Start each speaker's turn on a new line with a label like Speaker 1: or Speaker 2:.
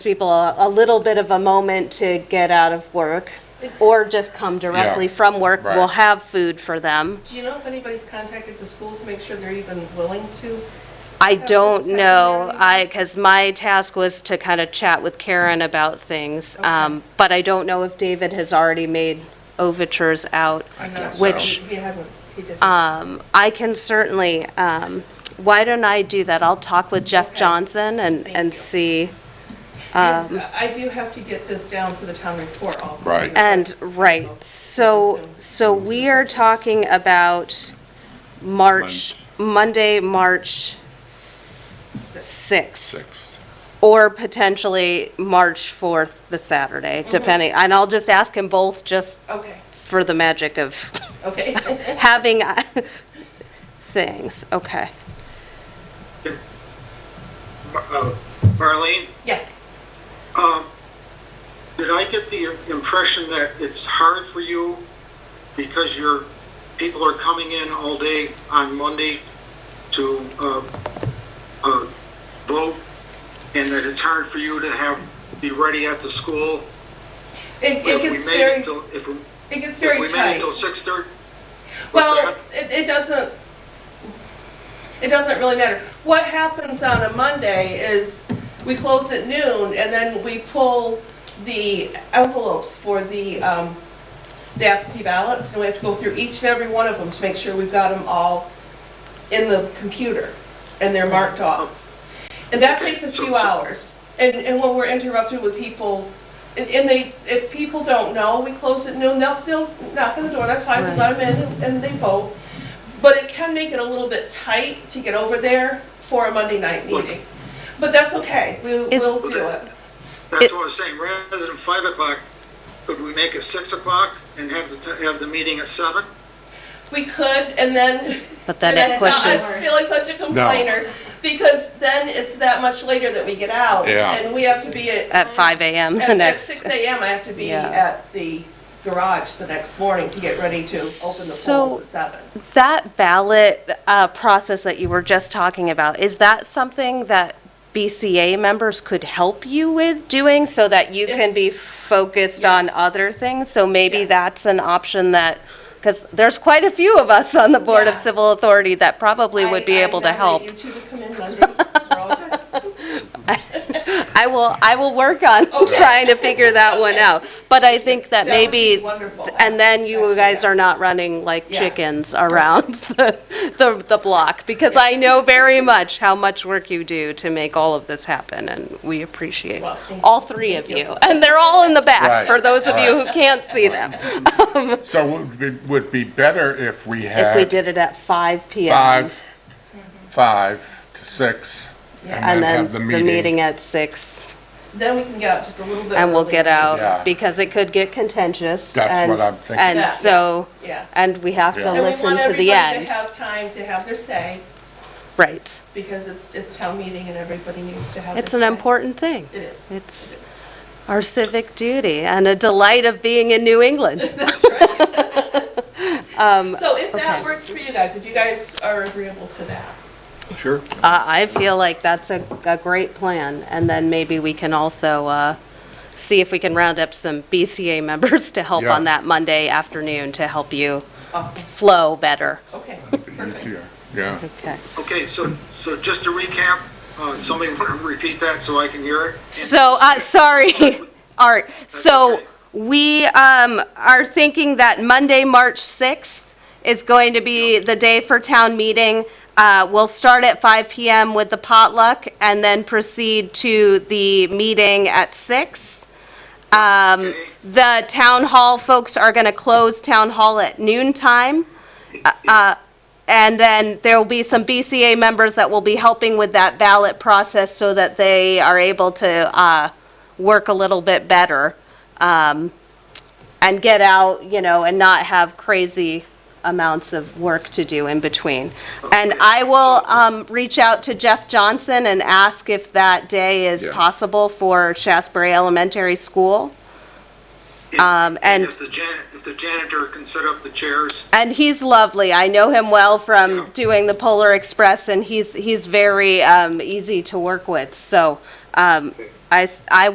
Speaker 1: people a a little bit of a moment to get out of work or just come directly from work. We'll
Speaker 2: right.
Speaker 1: have food for them.
Speaker 3: Do you know if anybody's contacted the school to make sure they're even willing to?
Speaker 1: I
Speaker 3: was
Speaker 1: don't
Speaker 3: kind of
Speaker 1: know,
Speaker 3: nervous.
Speaker 1: I, because my task was to kind of chat with Karen about things. um, But I don't know if David has already made overtures out.
Speaker 2: I don't
Speaker 1: Which-
Speaker 3: He hasn't, he didn't.
Speaker 1: Um, I can certainly, um, why don't I do that? I'll talk with Jeff
Speaker 3: Okay.
Speaker 1: Johnson and,
Speaker 3: Thank you.
Speaker 1: and see.
Speaker 3: Because
Speaker 1: um,
Speaker 3: I do have to get this down for the town report also.
Speaker 2: Right.
Speaker 3: because
Speaker 1: And,
Speaker 3: that's-
Speaker 1: right, so, so we are talking about March, Monday, March
Speaker 3: So-
Speaker 1: 6th,
Speaker 2: Six.
Speaker 1: or potentially March 4th, the Saturday, depending, and I'll just ask him both just
Speaker 3: Okay,
Speaker 1: for the magic of
Speaker 3: okay.
Speaker 1: having uh, things, okay.
Speaker 4: Uh, Marlene,
Speaker 3: Yes,
Speaker 4: um, did I get the impression that it's hard for you because your people are coming in all day on Monday to uh, uh, vote, and that it's hard for you to have, be ready at the school?
Speaker 3: it it
Speaker 4: if we
Speaker 3: gets
Speaker 4: made
Speaker 3: very,
Speaker 4: till- If we
Speaker 3: it gets
Speaker 4: if
Speaker 3: very
Speaker 4: we made
Speaker 3: tight.
Speaker 4: it till 6:30? What's
Speaker 3: Well, it,
Speaker 4: that?
Speaker 3: it doesn't, it doesn't really matter. What happens on a Monday is we close at noon and then we pull the envelopes for the, um, the absentee ballots and we have to go through each and every one of them to make sure we've got them all in the computer and they're marked off. And that takes a
Speaker 4: So-
Speaker 3: few
Speaker 4: so-
Speaker 3: hours. And, and when we're interrupted with people, and- and they, if people don't know, we close at noon, they'll, they'll knock on the door, that's fine, we let them in and- and they vote. But it can make it a little bit tight to get over there for a Monday night meeting. But that's okay, we,
Speaker 1: It's-
Speaker 3: we'll do it.
Speaker 4: That's what I was saying, rather than 5 o'clock, could we make it 6 o'clock and have the, t- have the meeting at 7?
Speaker 3: We could, and then.
Speaker 1: But then
Speaker 3: and
Speaker 1: it
Speaker 3: I- I
Speaker 1: pushes.
Speaker 3: feel like such a complainer, because then it's that much later that we get out.
Speaker 2: Yeah.
Speaker 3: And we have to be at.
Speaker 1: At 5 AM
Speaker 3: at-
Speaker 1: the
Speaker 3: At
Speaker 1: next.
Speaker 3: six AM, I have to be
Speaker 1: Yeah.
Speaker 3: at the garage the next morning to get ready to open the
Speaker 1: So-
Speaker 3: polls at seven.
Speaker 1: That ballot uh, process that you were just talking about, is that something that BCA members could help you with doing so that you can be focused on
Speaker 3: Yes.
Speaker 1: other things? So maybe
Speaker 3: Yes.
Speaker 1: that's an option that, because there's quite a few of us on the Board of
Speaker 3: Yes.
Speaker 1: Civil Authority that probably would be
Speaker 3: I- I
Speaker 1: able to help.
Speaker 3: nominate you two to come in Monday. We're all good.
Speaker 1: I will, I will work on trying to figure that one out. But I think that
Speaker 3: That would
Speaker 1: maybe.
Speaker 3: be wonderful.
Speaker 1: And then you
Speaker 3: Actually,
Speaker 1: guys are
Speaker 3: yes.
Speaker 1: not running like
Speaker 3: Yeah.
Speaker 1: chickens around the, the, the block, because I know very much how much work you do to make all of this happen, and we appreciate
Speaker 3: Well, thank
Speaker 1: all three of you. And they're all in the back,
Speaker 2: Right,
Speaker 1: for those of you
Speaker 2: right.
Speaker 1: who can't see them.
Speaker 2: So it would be, would be better if we had.
Speaker 1: If we did it at five PM.
Speaker 2: Five, five to six.
Speaker 1: And then
Speaker 2: have
Speaker 1: the meeting at six,
Speaker 3: Then we can get out just a little bit.
Speaker 1: and we'll
Speaker 3: early.
Speaker 1: get
Speaker 2: Yeah.
Speaker 1: out, because it could get contentious.
Speaker 2: That's what
Speaker 1: and-
Speaker 2: I'm thinking.
Speaker 1: And
Speaker 3: Yeah.
Speaker 1: so,
Speaker 3: Yeah.
Speaker 1: and we have
Speaker 2: Yeah.
Speaker 1: to
Speaker 2: And
Speaker 3: And we
Speaker 1: listen
Speaker 3: want
Speaker 1: to the
Speaker 3: everybody
Speaker 1: end.
Speaker 3: to have time to have their say,
Speaker 1: Right.
Speaker 3: because it's, it's town meeting and everybody needs to have.
Speaker 1: It's an
Speaker 3: their say.
Speaker 1: important thing.
Speaker 3: It is.
Speaker 1: It's our civic duty and a delight of being in New England.
Speaker 3: So if
Speaker 1: okay.
Speaker 3: that works for you guys, if you guys are agreeable to that.
Speaker 2: Sure.
Speaker 1: Uh, I feel like that's a, a great plan, and then maybe we can also uh, see if we can round up some BCA members to help
Speaker 2: Yeah.
Speaker 1: on that Monday afternoon to help you
Speaker 3: Awesome.
Speaker 1: flow better.
Speaker 3: Okay.
Speaker 2: Easier, yeah.
Speaker 1: Okay.
Speaker 4: Okay, so, so just to recap, uh, somebody want to repeat that so I can hear it?
Speaker 1: So, uh, sorry, Art, so
Speaker 4: okay.
Speaker 1: we, um, are thinking that Monday, March 6th is going to be the day for town meeting. Uh, we'll start at 5 PM with the potluck and then proceed to the meeting at 6. Um,
Speaker 4: Okay.
Speaker 1: the town hall folks are gonna close town hall at noon time. Uh, And then there will be some BCA members that will be helping with that ballot process so that they are able to uh, work a little bit better um, and get out, you know, and not have crazy amounts of work to do in between. And I will um, reach out to Jeff Johnson and ask if that day is
Speaker 2: Yeah.
Speaker 1: possible for Shasbury Elementary School. um, and-
Speaker 4: If the jan, if the janitor can set up the chairs,
Speaker 1: And he's lovely. I know him well from doing the Polar Express, and he's, he's very um, easy to work with. So um, I, s- I